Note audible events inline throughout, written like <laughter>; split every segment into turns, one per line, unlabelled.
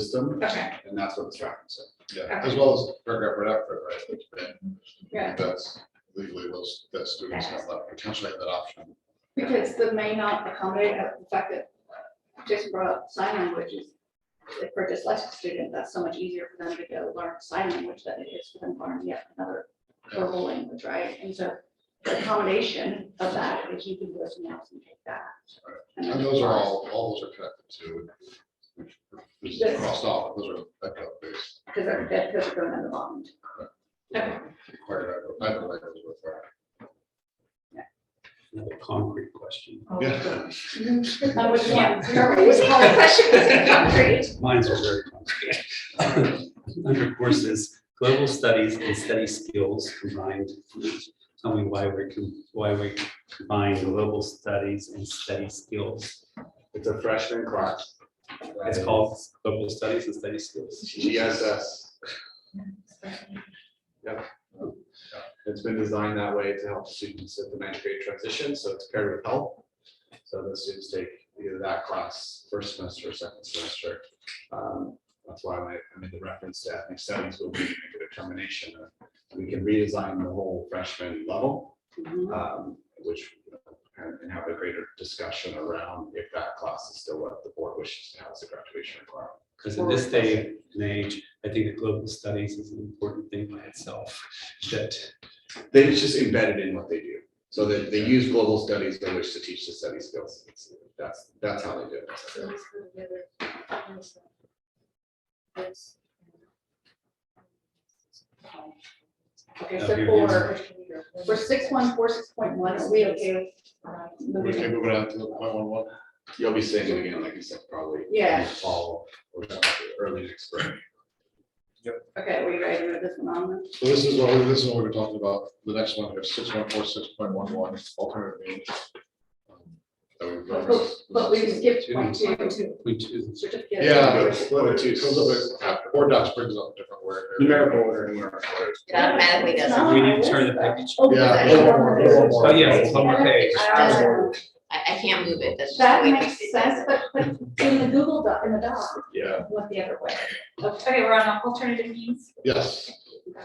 system,
Okay,
and that's what it's tracking, so.
Yeah, as well as paragraph right after, right? which then
yeah,
That's legally, those, that students have that, potentially have that option.
because the may not accommodate uh, the fact that just brought up sign language is if for a dyslexic student, that's so much easier for them to go learn sign language than it is for them to learn yet another verbal language, right? And so the accommodation of that is you can go somewhere else and take that. And
And
then-
those are all, all those are connected to. which is Crossed off, those are ECHO based.
Because they're, because they're going on the bond. Okay.
Required, I don't like those required.
Another concrete question.
Oh.
Yeah.
Uh, Which one? Remember, which one question is it concrete?
Mine's are very concrete. <laughs> Under courses, global studies and study skills combined. Tell me why we're, com- why we combine global studies and study skills. It's a freshman class. It's called global studies and study skills.
GSS. Yep. It's been designed that way to help students at the ninth grade transition, so it's paired with help. So the students take either that class first semester or second semester. Um, That's why I I made the reference to ethnic studies, will be a determination. of- We can redesign the whole freshman level, um, which you know, and and have a greater discussion around if that class is still what the board wishes to have as a graduation requirement.
Because in this day and age, I think that global studies is an important thing by itself. That
They it's just embedded in what they do. So they, they use global studies in which to teach the study skills. It's- That's, that's how they do it.
Okay,
No,
so
here it
for, for six one four six point one, are we okay? with uh,
We
moving
can
it?
move it out to the point one one.
You'll be seeing it again, like you said, probably. in the
Yeah.
Fall or early next spring.
Okay, we ready to move this one on?
So this is what, we- this is what we were talking about, the next one, here, six one four, six point one one, alternative means. um, That we've
But
referenced.
but we skipped point two,
we do.
certificate.
Yeah,
of-
but but it goes a little bit after- or docs brings up a different word.
Numerical order. Numerical order.
It automatically does it.
Not
We
on my
need to turn the
list,
package.
though.
Yeah.
Oh, yes, it's on my page.
Um,
I, I can't move it, that's just
That
the way.
makes sense, but but in the Google doc, in the doc,
Yeah,
went the other way.
Okay, we're on alternative means.
yes.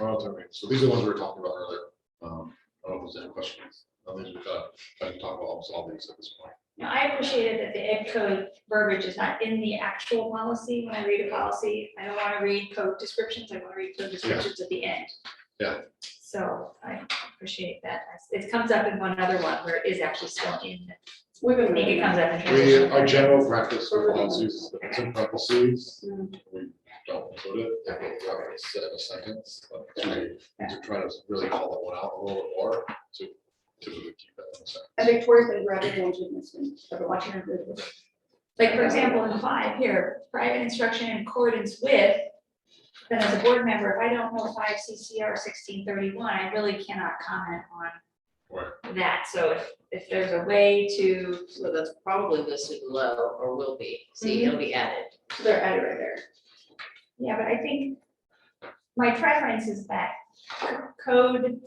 Alternative means. So these are the ones we were talking about earlier. Um, I don't know if there's any questions. I think we've got, I can talk about almost all these at this point.
Now, I appreciated that the ed code verbiage is not in the actual policy. When I read a policy, I don't want to read code descriptions. I want to read code descriptions at the end.
Yeah.
So I appreciate that. It comes up in one other one where it is actually still in,
We've
I
been
think it
making
comes up in
We,
transition.
our general practice for policies is that it's in parentheses.
Mm.
We don't include it. and we have it Set in a second. To try to really call that one out a little bit more to typically keep that in a second.
And Victoria's been grabbing hold of this one, ever watching her do this.
Like, for example, in five here, private instruction in accordance with, then as a board member, if I don't know five CCR sixteen thirty-one, I really cannot comment
Right.
on that. So if, if there's a way to
So that's probably listed low or will be, see,
Mm-hmm.
it'll be added.
They're added right there.
Yeah, but I think my preference is that code,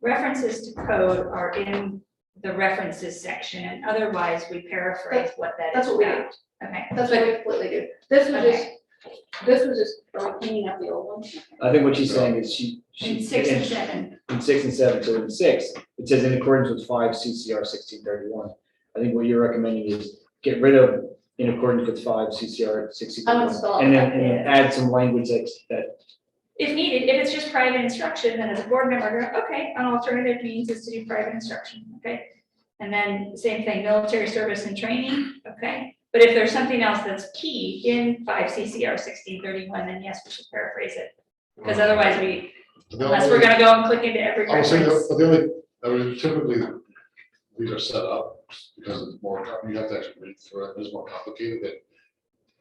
references to code are in the references section, and otherwise we paraphrase what that
That's
is
what we
about. Okay,
That's what we completely do. This was just, this was just, are we cleaning up the old one?
I think what she's saying is she. she-
in six and seven,
In six and seven, so in six, it says in accordance with five CCR sixteen thirty-one. I think what you're recommending is get rid of in accordance with five CCR sixteen
I
thirty-one.
would spell it
And then,
like
and then add some language that's, that,
if needed, if it's just private instruction, then as a board member, okay, an alternative means is to do private instruction, okay? And then same thing, military service and training, okay? But if there's something else that's key in five CCR sixteen thirty-one, then yes, we should paraphrase it. Because otherwise we,
The
Unless
only-
we're gonna go and click into every
I would say that,
reference.
but the only, I mean, typically, these are set up because it's more, com- you have to actually read through it, it's more complicated than.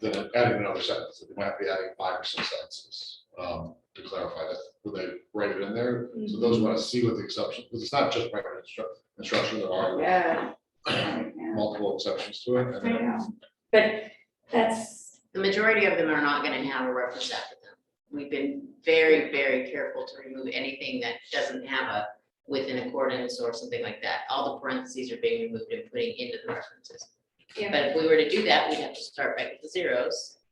Than adding another sentence, we might have to be adding five or six sentences, um, to clarify that, when they write it in there, so those who want to see what the exception, because it's not just private instru- instruction, there are
Yeah.
multiple exceptions to it.
I
and then-
know. But that's,
The majority of them are not gonna have a reference after them. We've been very, very careful to remove anything that doesn't have a within accordance or something like that. All the parentheses are being removed and putting into the references.
Yeah.
But if we were to do that, we'd have to start back with the zeros